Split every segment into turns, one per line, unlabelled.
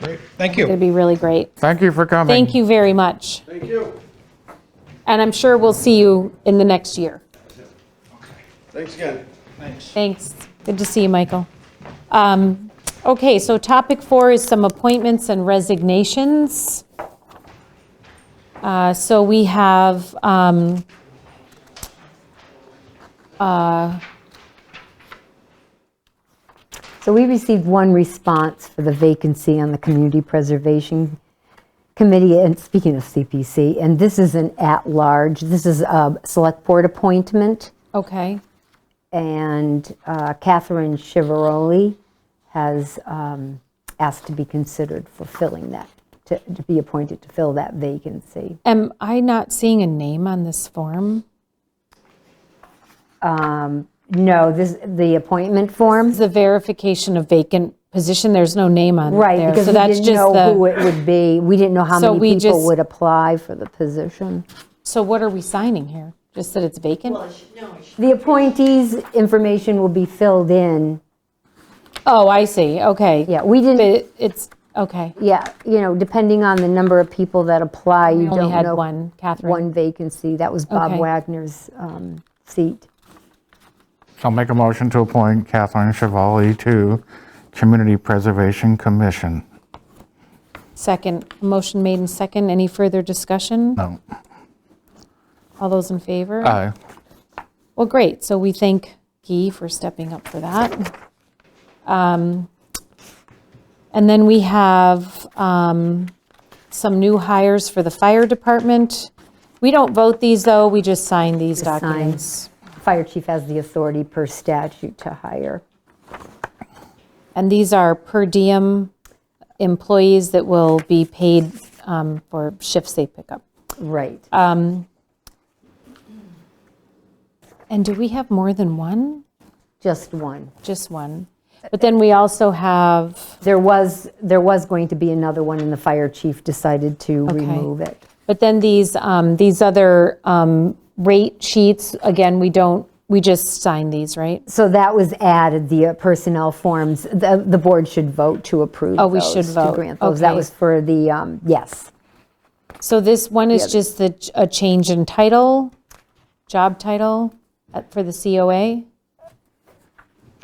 Great, thank
It'd
you.
be really great.
Thank you for coming.
Thank you very much. Thank you. And I'm sure we'll see you in the next year.
Thanks again.
Thanks.
Thanks. Good to see you, Michael. Um, Okay, so topic four is some appointments and resignations. Uh, So we have um,
So we received one response for the vacancy on the Community Preservation Committee, and speaking of CPC, and this is an at-large, this is a Select Board appointment,
Okay,
and uh, Catherine Chivaroli has um, asked to be considered for filling that, to to be appointed to fill that vacancy.
am I not seeing a name on this form?
No, this, the appointment form?
It's The verification of vacant position, there's no name on there.
Right, because
So
we
that's
didn't
just
know
the-
who it would be. We didn't know how
So we
many people
just-
would apply for the position.
So what are we signing here? Just that it's vacant?
The appointees' information will be filled in.
Oh, I see, okay.
Yeah, we didn't,
It- It's, okay.
yeah, you know, depending on the number of people that apply, you
We only
don't
had
know.
one, Catherine.
One vacancy. That was Bob
Okay.
Wagner's um, seat.
I'll make a motion to appoint Kathleen Chevali to Community Preservation Commission.
Second, motion made and second. Any further discussion?
No.
All those in favor?
Aye.
Well, great. So we thank Guy for stepping up for that. Um, And then we have um, some new hires for the fire department. We don't vote these, though. We just sign these
sign.
documents.
Fire chief has the authority per statute to hire.
And these are per diem employees that will be paid um, for shifts they pick up.
Right.
Uh, And do we have more than one?
Just one.
Just one. But then we also have,
There was, there was going to be another one, and the fire chief decided to remove it.
but then these, um, these other um, rate sheets, again, we don't, we just sign these, right?
So that was added, the uh, personnel forms, the, the board should vote to approve
Oh, we should
those,
vote.
To grant those, that
Okay.
was for the, um, yes,
So this one is just the, a change in title, job title uh, for the COA?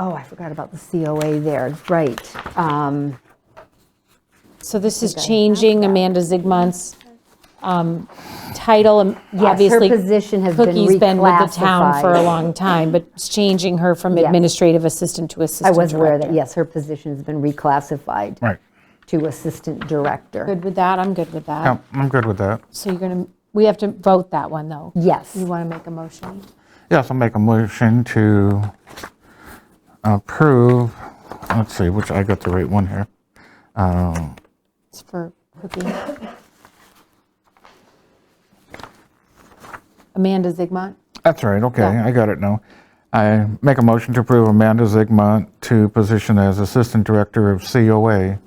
oh, I forgot about the COA there, right. Um,
So this is changing Amanda Zygmunt's um, title, and
Yes, her
obviously.
position has been
Cookie's been with the town for a
reclassified.
long time, but it's changing her from
Yes.
administrative assistant to
I
assistant
was
director.
aware that, yes, her position has been reclassified
Right.
to assistant director.
Good with that? I'm good with that.
Yeah, I'm good with that.
So you're going to, we have to vote that one, though.
Yes,
You want to make a motion?
Yes, I'll make a motion to approve, let's see, which, I got the right one here.
It's for Cookie. Amanda Zigmont?
That's right, okay,
Yeah.
I got it now. I make a motion to approve Amanda Zigmont to position as Assistant Director of COA.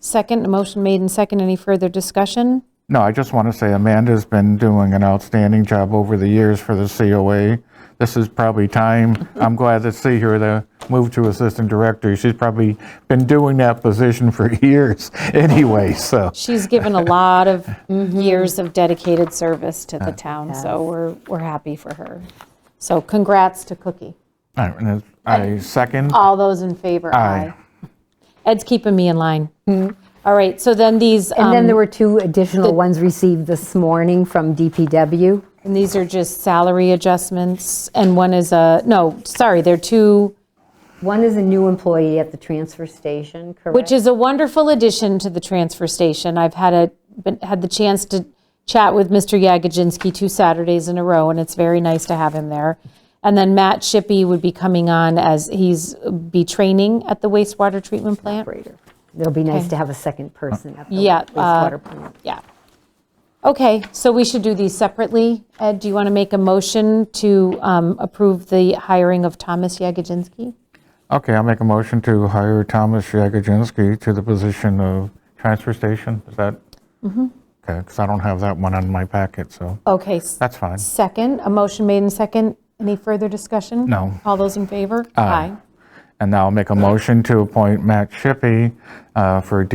Second, a motion made and second. Any further discussion?
No, I just want to say Amanda's been doing an outstanding job over the years for the COA. This is probably time, I'm glad to see her to move to Assistant Director. She's probably been doing that position for years anyway, so.
She's given a lot of
Mm-hmm.
years of dedicated service to the town, so we're, we're happy for her. So congrats to Cookie.
All right, and I second.
All those in favor?
Aye.
Ed's keeping me in line. All right, so then these,
Mm-hmm. and then
um,
there were two additional ones received this morning from DPW.
And these are just salary adjustments, and one is a, no, sorry, they're two,
One is a new employee at the transfer station, correct?
which is a wonderful addition to the transfer station. I've had a, been- had the chance to chat with Mr. Yagodzinski two Saturdays in a row, and it's very nice to have him there. And then Matt Shippey would be coming on as he's, be training at the wastewater treatment plant.
operator. It'll be nice to have a second person at the
Yeah, uh,
wastewater plant.
Yeah. Okay, so we should do these separately. Ed, do you want to make a motion to um, approve the hiring of Thomas Yagodzinski?
Okay, I'll make a motion to hire Thomas Jagodzinski to the position of transfer station. Is that? Okay, because I don't have that one on my packet, so
Okay. s-
that's fine.
Second, a motion made in second. Any further discussion?
No.
All those in favor? Aye.
And now I'll make a motion to appoint Matt Shippey uh, for